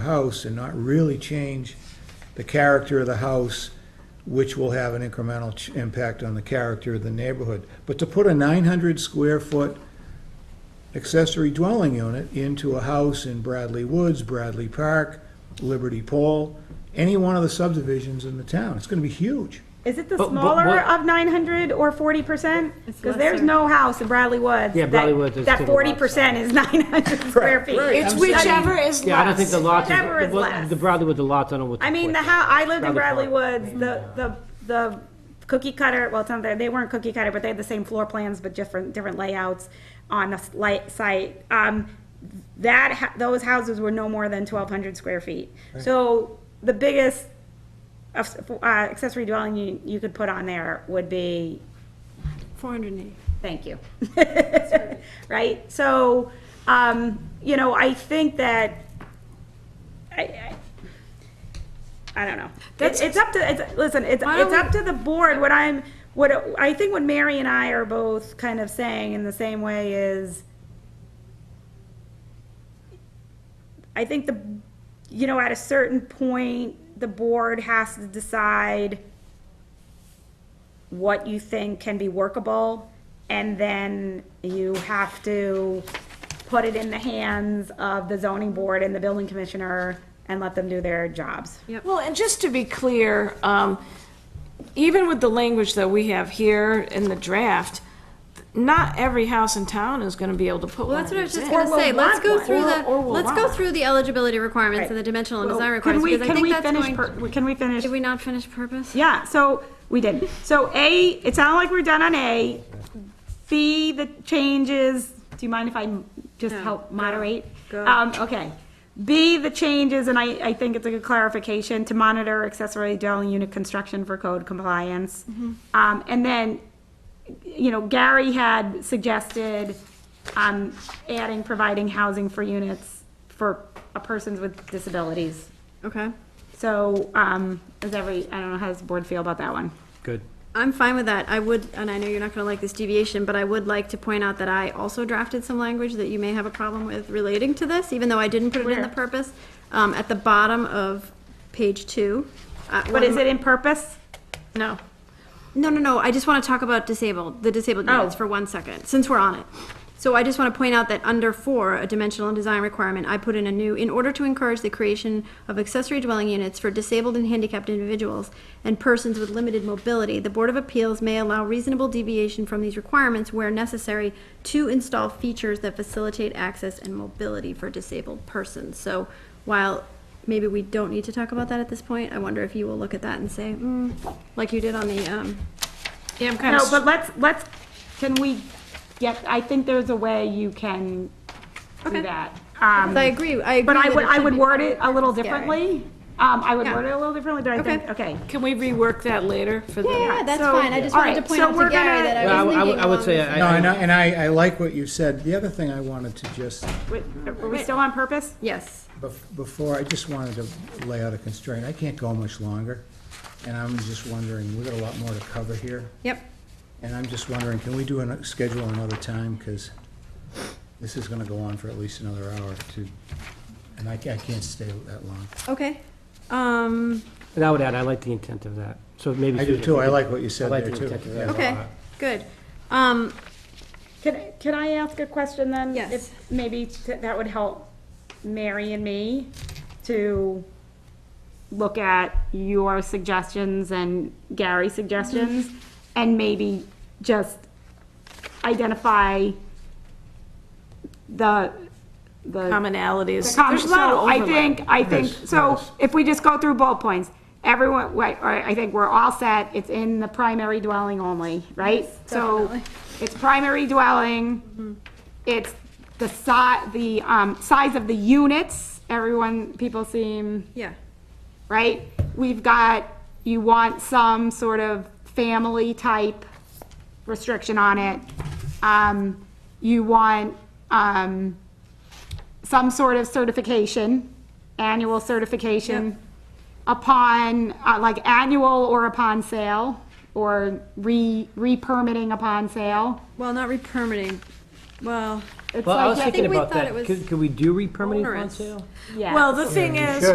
house and not really change the character of the house, which will have an incremental ch- impact on the character of the neighborhood. But to put a 900 square foot accessory dwelling unit into a house in Bradley Woods, Bradley Park, Liberty Pole, any one of the subdivisions in the town, it's going to be huge. Is it the But- but smaller what- of nine hundred or forty percent? Because there's lesser. no house in Bradley Woods. Yeah, that- Bradley Woods is to That the forty left percent is nine hundred square feet. It's whichever is less. Yeah, I don't think the lots. are- Whatever is well, less. The Bradley with the lots, I don't know what. I mean, the what- how, I lived in Bradley Bradley Woods, the, the, the cookie cutter, well, it's not, that- they weren't cookie cutter, but they had the same floor plans, but different, different layouts on the slight site. Um, that, ha- those houses were no more than twelve hundred square feet. So the biggest of- uh, accessory dwelling you, you could put on there would be 480. Thank you. Right? So, um, you know, I think that, I, I, I don't know. It's, it's up to, it's, listen, it's, Why don't it's up to the board. What I'm, what, I think what Mary and I are both kind of saying in the same way is, I think the, you know, at a certain point, the board has to decide what you think can be workable, and then you have to put it in the hands of the zoning board and the building commissioner and let them do their jobs. Well, and just to be clear, um, even with the language that we have here in the draft, not every house in town is gonna be able to put Well, one of that's what I was these just in. gonna Or say, we'll let's want go one. through Or- or the, we'll let's go want. through the eligibility requirements and the dimensional and design requirements, because I think that's going. Can we finish? Did we not finish purpose? Yeah, so we did. So A, it sounded like we're done on A. B, the changes, do you mind if I just No, help go, moderate? go. Um, okay. B, the changes, and I, I think it's a good clarification, to monitor accessory dwelling unit construction for code compliance. Mm-hmm. Um, and then, you know, Gary had suggested, um, adding, providing housing for units for uh, persons with disabilities. Okay, So, um, does every, I don't know, how does the board feel about that one? Good. I'm fine with that. I would, and I know you're not gonna like this deviation, but I would like to point out that I also drafted some language that you may have a problem with relating to this, even though I didn't put it in the Where? purpose. Um, at the bottom of page two. uh, But one is of it in purpose? No. No, no, no. I just want to talk about disabled, the disabled units Oh. for one second, since we're on it. So I just want to point out that under four, a dimensional and design requirement, I put in a new, in order to encourage the creation of accessory dwelling units for disabled and handicapped individuals and persons with limited mobility, the Board of Appeals may allow reasonable deviation from these requirements where necessary to install features that facilitate access and mobility for disabled persons. So while maybe we don't need to talk about that at this point. I wonder if you will look at that and say, mm, like you did on the, um, Yeah, I'm kind No, but of, let's, let's, can we, yep, I think there's a way you can do Okay. that. I Um, agree, I agree. But I that would, it I should would be- word it a little Gary. differently. Um, I would Yeah. word it a little differently, but I think, okay. can we rework that later for the? Yeah, that's so- fine. I just All wanted to right, point so out we're to Gary gonna- that Well, I I w- was I w- thinking I would along say uh, those- I- No, and I, and I, I like what you said. The other thing I wanted to just Wait, Are we still on purpose? Yes, Bef- Before, I just wanted to lay out a constraint. I can't go much longer, and I'm just wondering, we've got a lot more to cover here, yep. and I'm just wondering, can we do a schedule another time? Because this is going to go on for at least another hour to, and I ca- I can't stay that long. Okay. Um, And I would add, I like the intent of that. So maybe. I do Susan, too. I you- like what you said like there the too. intent of Yeah. that. okay, good. Um, Can, can I ask a question then? Yes. If Maybe t- that would help Mary and me to look at your suggestions and Gary's suggestions, and maybe just identify the, the. Commonalities. The common- There's a lot of so I overlap. think, I think, Yes, so yes. if we just go through bullet points, everyone, right, all right, I think we're all set, it's in the primary dwelling only, right? So definitely. Mm-hmm. it's primary dwelling, it's the si, the, um, size of the units, everyone, people seem yeah, right? We've got, you want some sort of family type restriction on it. Um, you want, um, some sort of certification, annual certification upon, uh, like annual or upon sale, or re, re-permitting upon sale. well, not re-permitting, well, It's Well, I like was that- thinking think we about thought it that. was Could, could we do re-permitting on onerous. sale? yeah. Well, the thing you is, should.